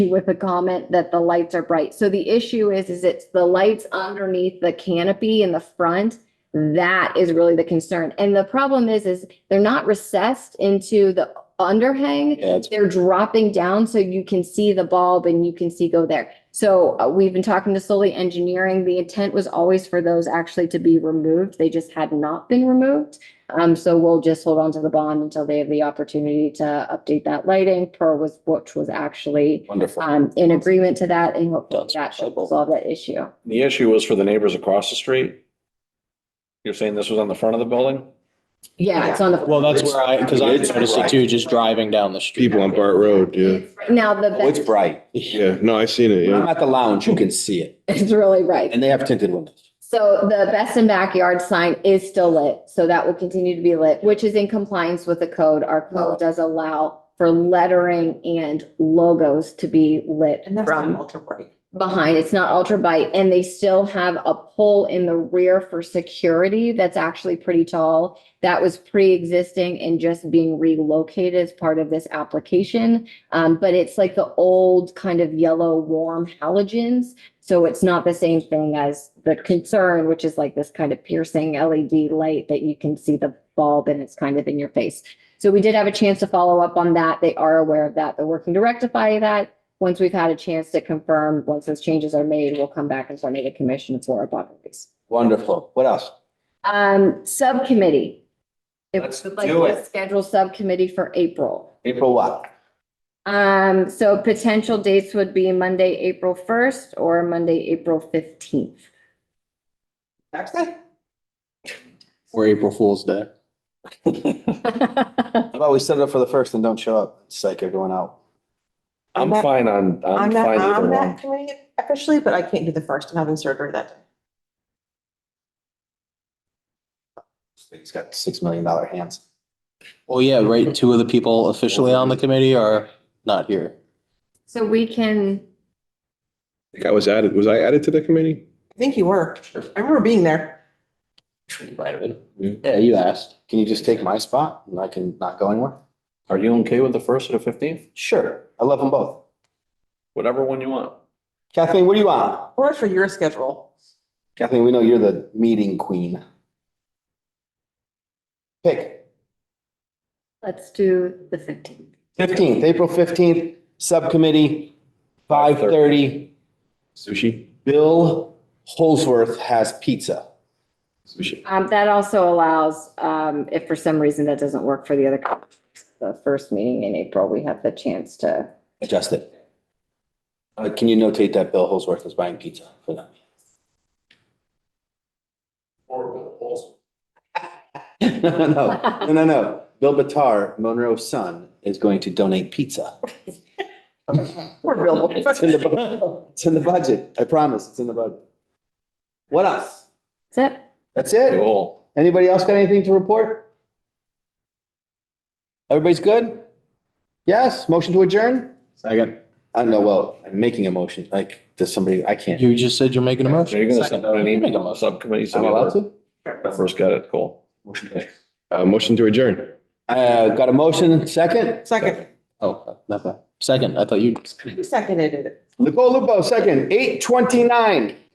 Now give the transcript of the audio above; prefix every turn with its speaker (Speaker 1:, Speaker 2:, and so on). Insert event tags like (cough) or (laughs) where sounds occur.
Speaker 1: with a comment that the lights are bright. So the issue is, is it's the lights underneath the canopy in the front. That is really the concern. And the problem is, is they're not recessed into the underhang.
Speaker 2: Yeah, it's,
Speaker 1: They're dropping down so you can see the bulb and you can see go there. So uh, we've been talking to Solely Engineering. The intent was always for those actually to be removed. They just had not been removed. Um, so we'll just hold on to the bond until they have the opportunity to update that lighting per was, which was actually
Speaker 2: wonderful.
Speaker 1: um, in agreement to that and hopefully
Speaker 2: That's
Speaker 1: that should
Speaker 2: acceptable.
Speaker 1: resolve that issue.
Speaker 2: The issue was for the neighbors across the street. You're saying this was on the front of the building?
Speaker 1: Yeah, it's on the.
Speaker 3: Well, that's where I, because I noticed it too, just driving down the street.
Speaker 4: People on Bart Road, yeah.
Speaker 1: Now the,
Speaker 5: Oh, it's
Speaker 1: back-
Speaker 5: bright.
Speaker 4: Yeah, no, I seen it,
Speaker 5: When I'm
Speaker 4: yeah.
Speaker 5: at the lounge, you can see it,
Speaker 1: (laughs) it's really right.
Speaker 5: and they have tinted windows.
Speaker 1: So the best and backyard sign is still lit, so that will continue to be lit, which is in compliance with the code. Our code does allow for lettering and logos to be lit
Speaker 6: And that's not
Speaker 1: from
Speaker 6: ultra bright.
Speaker 1: behind. It's not ultra bright and they still have a pole in the rear for security that's actually pretty tall. That was pre-existing and just being relocated as part of this application. Um, but it's like the old kind of yellow warm halogens. So it's not the same thing as the concern, which is like this kind of piercing LED light that you can see the bulb and it's kind of in your face. So we did have a chance to follow up on that. They are aware of that. They're working to rectify that. Once we've had a chance to confirm, once those changes are made, we'll come back and formate a commission for a bond release.
Speaker 5: Wonderful. What else?
Speaker 1: Um, subcommittee. If
Speaker 5: Let's
Speaker 1: we would like
Speaker 5: do
Speaker 1: to
Speaker 5: it.
Speaker 1: Schedule subcommittee for April.
Speaker 5: April what?
Speaker 1: Um, so potential dates would be Monday, April first or Monday, April fifteenth.
Speaker 5: Next day?
Speaker 3: Or April Fool's
Speaker 5: (laughs)
Speaker 3: Day.
Speaker 5: How about we set it up for the first and don't show up? Psych everyone out.
Speaker 2: I'm
Speaker 6: I'm not-
Speaker 2: fine on,
Speaker 6: I'm
Speaker 2: I'm
Speaker 6: not
Speaker 2: fine either
Speaker 6: on
Speaker 2: one.
Speaker 6: that committee officially, but I can't do the first. I'm having surgery that day.
Speaker 5: He's got six million dollar hands.
Speaker 3: Well, yeah, right. Two of the people officially on the committee are not here.
Speaker 1: So we can,
Speaker 4: I think I was added, was I added to the committee?
Speaker 6: I think you were. I remember being there.
Speaker 3: Yeah, you asked.
Speaker 5: Can you just take my spot and I can not go anywhere?
Speaker 2: Are you okay with the first or the fifteenth?
Speaker 5: Sure, I love them both.
Speaker 2: Whatever one you want.
Speaker 5: Kathleen, what do you want?
Speaker 6: Or for your schedule.
Speaker 5: Kathleen, we know you're the meeting queen. Pick
Speaker 1: let's do the fifteenth.
Speaker 5: fifteenth, April fifteenth, subcommittee, five thirty.
Speaker 4: Sushi?
Speaker 5: Bill Holsworth has pizza.
Speaker 4: Sushi.
Speaker 1: Um, that also allows, um, if for some reason that doesn't work for the other, co- the first meeting in April, we have the chance to.
Speaker 5: Adjust it. Uh, can you notate that Bill Holsworth is buying pizza for them? (laughs) No, no, no, no, no, no. Bill Batar, Monroe's son, is going to donate pizza.
Speaker 6: We're available.
Speaker 5: It's in the, bu- it's in the budget. I promise, it's in the budget. What else?
Speaker 1: That's it.
Speaker 5: That's it?
Speaker 2: Cool.
Speaker 5: Anybody else got anything to report? Everybody's good? Yes, motion to adjourn?
Speaker 4: Second.
Speaker 5: I don't know, well, I'm making a motion, like, does somebody, I can't.
Speaker 3: You just said you're making a
Speaker 2: Are you
Speaker 3: motion.
Speaker 2: gonna send out an
Speaker 3: You make a
Speaker 2: email to
Speaker 3: motion.
Speaker 2: subcommittee? so
Speaker 5: I'm
Speaker 2: we
Speaker 5: allowed to?
Speaker 2: were- First got it, cool.
Speaker 5: Motion carries.
Speaker 4: Uh, motion to adjourn.
Speaker 5: Uh, got a motion, second?
Speaker 6: Second,
Speaker 3: Oh, not that. Second, I thought you.
Speaker 6: who seconded it?
Speaker 5: Nicole Lupo, second, eight twenty-nine.